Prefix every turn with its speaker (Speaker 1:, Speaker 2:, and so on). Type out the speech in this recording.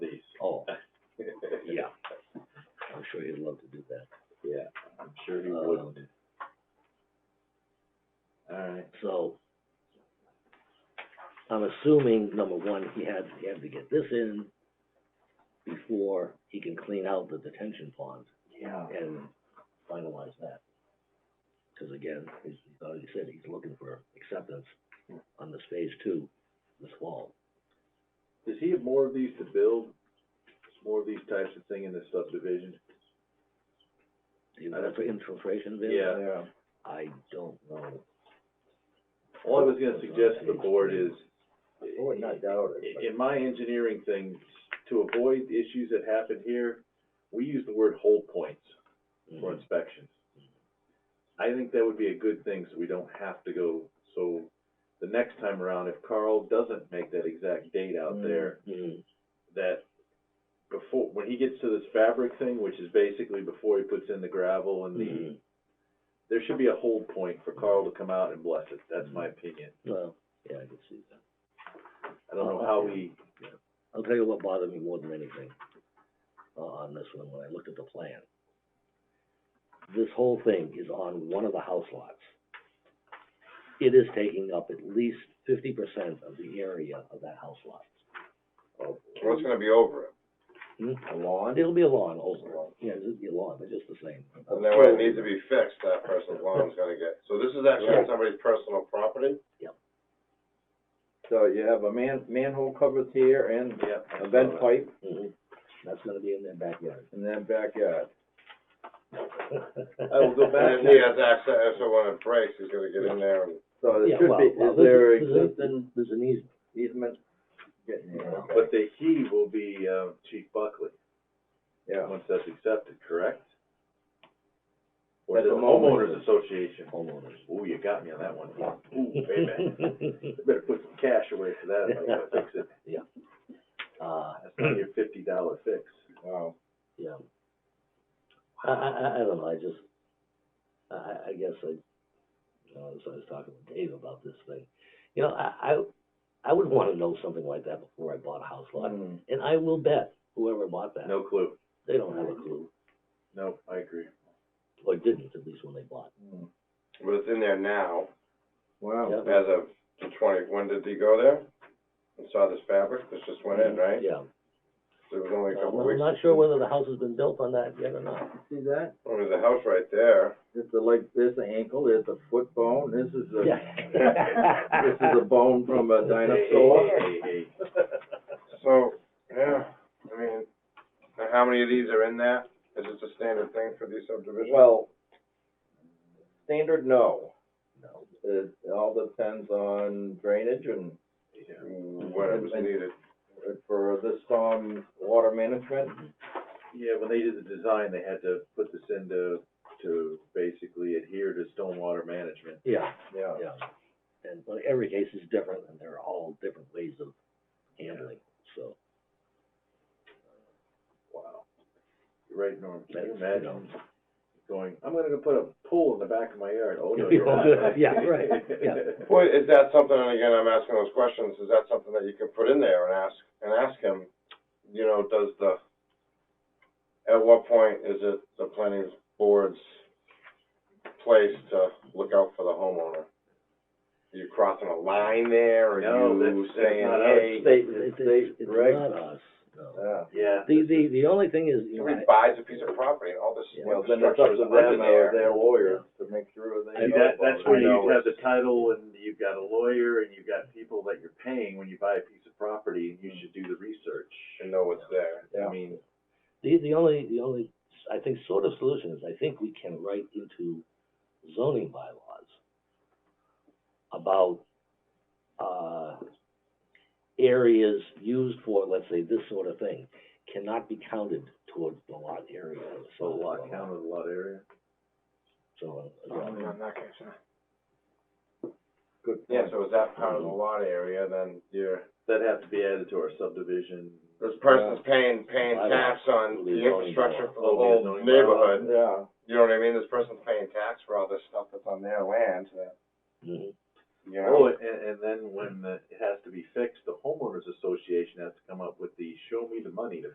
Speaker 1: Oh.
Speaker 2: sure he'd love to do that.
Speaker 3: Yeah, I'm sure he
Speaker 2: Um,
Speaker 3: would. Alright,
Speaker 2: So, I'm assuming, number one, he had, he had to get this in before he can clean out the detention pond
Speaker 3: yeah,
Speaker 2: and finalize that. Because again, he's, he's already said he's looking for acceptance on this phase two this fall.
Speaker 1: Does he have more of these to build? More of these types of thing in this subdivision?
Speaker 2: Do you know if the infiltration bid?
Speaker 1: Yeah.
Speaker 3: yeah,
Speaker 2: I don't know.
Speaker 1: All I was gonna suggest to the board is,
Speaker 3: I would not doubt
Speaker 1: i-
Speaker 3: it, but
Speaker 1: in my engineering things, to avoid the issues that happened here, we use the word hold points
Speaker 3: Mm-hmm.
Speaker 1: for
Speaker 2: Mhm.
Speaker 1: inspections. I think that would be a good thing, so we don't have to go, so the next time around, if Carl doesn't make that exact date out
Speaker 3: Mm.
Speaker 1: there,
Speaker 2: Mhm.
Speaker 1: that before, when he gets to this fabric thing, which is basically before he puts in the gravel and the
Speaker 2: Mhm.
Speaker 3: Mm-hmm.
Speaker 1: there should be a hold point for Carl to come out and bless it, that's my
Speaker 3: Mm-hmm.
Speaker 1: opinion.
Speaker 2: Well, yeah, I can see that.
Speaker 1: I don't know how we,
Speaker 2: I'll tell you what bothered me more than anything uh, on this one, when I looked at the plan. This whole thing is on one of the house lots. It is taking up at least fifty percent of the area of that house lot.
Speaker 4: Well, it's gonna be over it,
Speaker 2: Hmm?
Speaker 3: a lawn,
Speaker 2: It'll be a lawn over, it. yeah, it'll be a lawn, but just the same.
Speaker 4: and then when it needs to be fixed, that person's lawn's gonna get, so this is actually on somebody's personal property?
Speaker 3: so you have a man, manhole covers here and
Speaker 1: yeah.
Speaker 3: a vent pipe
Speaker 2: Mhm. That's gonna be in their backyard.
Speaker 3: in that backyard.
Speaker 1: I will go back
Speaker 4: And if he has access, so when it breaks, he's gonna get in there and,
Speaker 3: So there
Speaker 2: Yeah,
Speaker 3: should
Speaker 2: well,
Speaker 3: be,
Speaker 2: well,
Speaker 3: is there
Speaker 2: there's a- there's a-
Speaker 3: existing
Speaker 2: There's an easement,
Speaker 3: easement getting there?
Speaker 4: Okay.
Speaker 1: But the he will be, uh, Chief Buckley,
Speaker 3: Yeah,
Speaker 1: once that's accepted, correct? Or
Speaker 3: At
Speaker 1: the
Speaker 3: the moment-
Speaker 1: homeowners association,
Speaker 2: homeowners.
Speaker 1: ooh, you got me on that one, ooh, baby, better put some cash away for that, if I gotta fix it,
Speaker 2: Uh,
Speaker 1: that's not your fifty dollar fix.
Speaker 3: wow,
Speaker 2: Yeah. I, I, I- I don't know, I just, I- I, I guess I, you know, so I was talking with Dave about this thing. You know, I, I, I would wanna know something like that before I bought a house lot,
Speaker 3: Mm.
Speaker 2: and I will bet whoever bought that,
Speaker 1: No clue,
Speaker 2: they don't have a clue,
Speaker 1: no, I agree.
Speaker 2: or didn't, at least when they bought.
Speaker 3: Mm.
Speaker 4: but it's in there now,
Speaker 3: wow,
Speaker 2: Yeah.
Speaker 4: as of the twenty, when did he go there? And saw this fabric, this just went in, right?
Speaker 2: Yeah,
Speaker 4: It was only a couple
Speaker 2: I'm
Speaker 4: weeks,
Speaker 2: not sure whether the house has been built on that yet or not.
Speaker 3: see that?
Speaker 4: well, there's a house right there,
Speaker 3: This is like, there's an ankle, there's a foot bone, this is a, this
Speaker 2: Yeah.
Speaker 3: is a bone from a dinosaur.
Speaker 1: Hey, hey, hey,
Speaker 4: so, yeah, I mean, and how many of these are in there? Is this a standard thing for these subdivisions?
Speaker 3: Well, standard, no.
Speaker 2: No.
Speaker 3: It all depends on drainage and
Speaker 1: hey. Yeah.
Speaker 4: When it was needed.
Speaker 3: for this storm water management.
Speaker 1: Yeah, when they did the design, they had to put this in to, to basically adhere to stormwater management.
Speaker 2: Yeah.
Speaker 3: Yeah.
Speaker 2: Yeah, and, but every case is different, and there are all different ways of handling, so.
Speaker 1: Wow. You're right, Norm, can you
Speaker 2: That's, you
Speaker 1: imagine going, I'm gonna go put a pool in the back of my yard, oh, no,
Speaker 2: Yeah,
Speaker 1: you're not.
Speaker 2: yeah, right, yeah.
Speaker 4: Well, is that something, and again, I'm asking those questions, is that something that you can put in there and ask, and ask him, you know, does the, at what point is it the planning board's place to look out for the homeowner? Are you crossing a line there, or
Speaker 1: No,
Speaker 4: are you
Speaker 1: that's- that's
Speaker 4: saying,
Speaker 1: not us.
Speaker 4: hey?
Speaker 3: State,
Speaker 2: It's,
Speaker 3: state
Speaker 2: it's, it's
Speaker 3: reg,
Speaker 2: not us, no.
Speaker 3: yeah.
Speaker 1: Yeah.
Speaker 2: The, the, the only thing is, you know,
Speaker 4: Somebody
Speaker 2: I-
Speaker 4: buys a piece of property and all this
Speaker 2: Yeah.
Speaker 3: Well, then it's up
Speaker 4: infrastructure
Speaker 3: to
Speaker 4: is
Speaker 3: them
Speaker 4: living
Speaker 3: or
Speaker 4: there.
Speaker 3: their lawyers to make sure
Speaker 1: See,
Speaker 3: they.
Speaker 1: that, that's where
Speaker 4: know
Speaker 1: you have
Speaker 4: it's-
Speaker 1: the title, and you've got a lawyer, and you've got people that you're paying when you buy a piece of property, and you should do the research.
Speaker 4: And know it's there.
Speaker 3: Yeah.
Speaker 1: I mean,
Speaker 2: the, the only, the only, I think, sort of solution is, I think we can write into zoning bylaws about, uh, areas used for, let's say, this sort of thing, cannot be counted towards the lot area. or
Speaker 1: so a
Speaker 2: size
Speaker 1: lot
Speaker 2: of the lot.
Speaker 1: count of a lot area.
Speaker 2: So, uh, yeah.
Speaker 4: In that case, yeah.
Speaker 3: Good
Speaker 4: Yeah,
Speaker 3: point.
Speaker 4: so is that part of the lot area, then you're,
Speaker 1: That'd have to be added to our subdivision.
Speaker 4: this person's paying, paying
Speaker 2: I don't-
Speaker 4: tax on the
Speaker 2: we don't
Speaker 4: infrastructure
Speaker 2: know.
Speaker 4: for the
Speaker 1: Oh, we
Speaker 4: whole
Speaker 1: don't know.
Speaker 4: neighborhood.
Speaker 3: Yeah,
Speaker 4: You know what I mean? This person's paying tax for all this stuff that's on their land, that,
Speaker 2: mhm.
Speaker 4: you
Speaker 1: Oh,
Speaker 4: know?
Speaker 1: and, and then when the- it has to be fixed, the homeowners association has to come up with the show me the money to